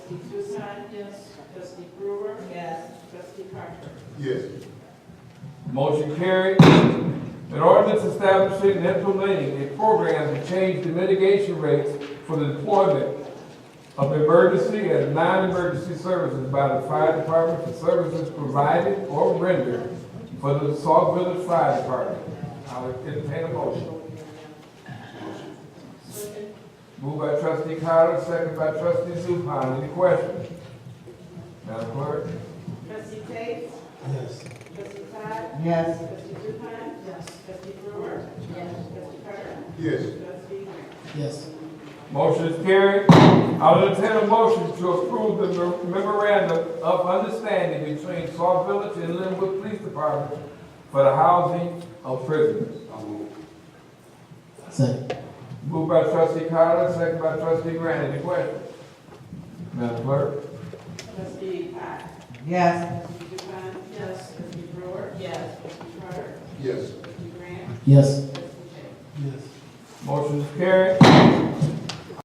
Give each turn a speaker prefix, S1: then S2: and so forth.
S1: Trustee Tucson? Yes. Trustee Brewer?
S2: Yes.
S1: Trustee Parker?
S3: Yes.
S4: Motion carried. An ordinance establishing and implementing a program to change the mitigation rates for the deployment of emergency and non-emergency services by the fire department for services provided or rendered for the Sauk Village Fire Department. I'll entertain a motion. Moved by trustee Carter, second by trustee Zupan. Any questions? Madam Clerk?
S1: Trustee Tate?
S3: Yes.
S1: Trustee Todd?
S2: Yes.
S1: Trustee Zupan? Yes. Trustee Brewer? Yes. Trustee Parker?
S3: Yes.
S1: Trustee Grant?
S3: Yes.
S4: Motion is carried. I will entertain a motion to approve the memorandum of understanding between Saw Village and Linwood Police Department for the housing of prisoners.
S3: Second.
S4: Moved by trustee Carter, second by trustee Grant. Any questions? Madam Clerk?
S1: Trustee Todd?
S2: Yes.
S1: Trustee Zupan? Yes. Trustee Brewer?
S2: Yes.
S1: Trustee Carter?
S3: Yes.
S1: Trustee Grant?
S3: Yes.
S1: Trustee Tate?
S3: Yes.
S4: Motion is carried.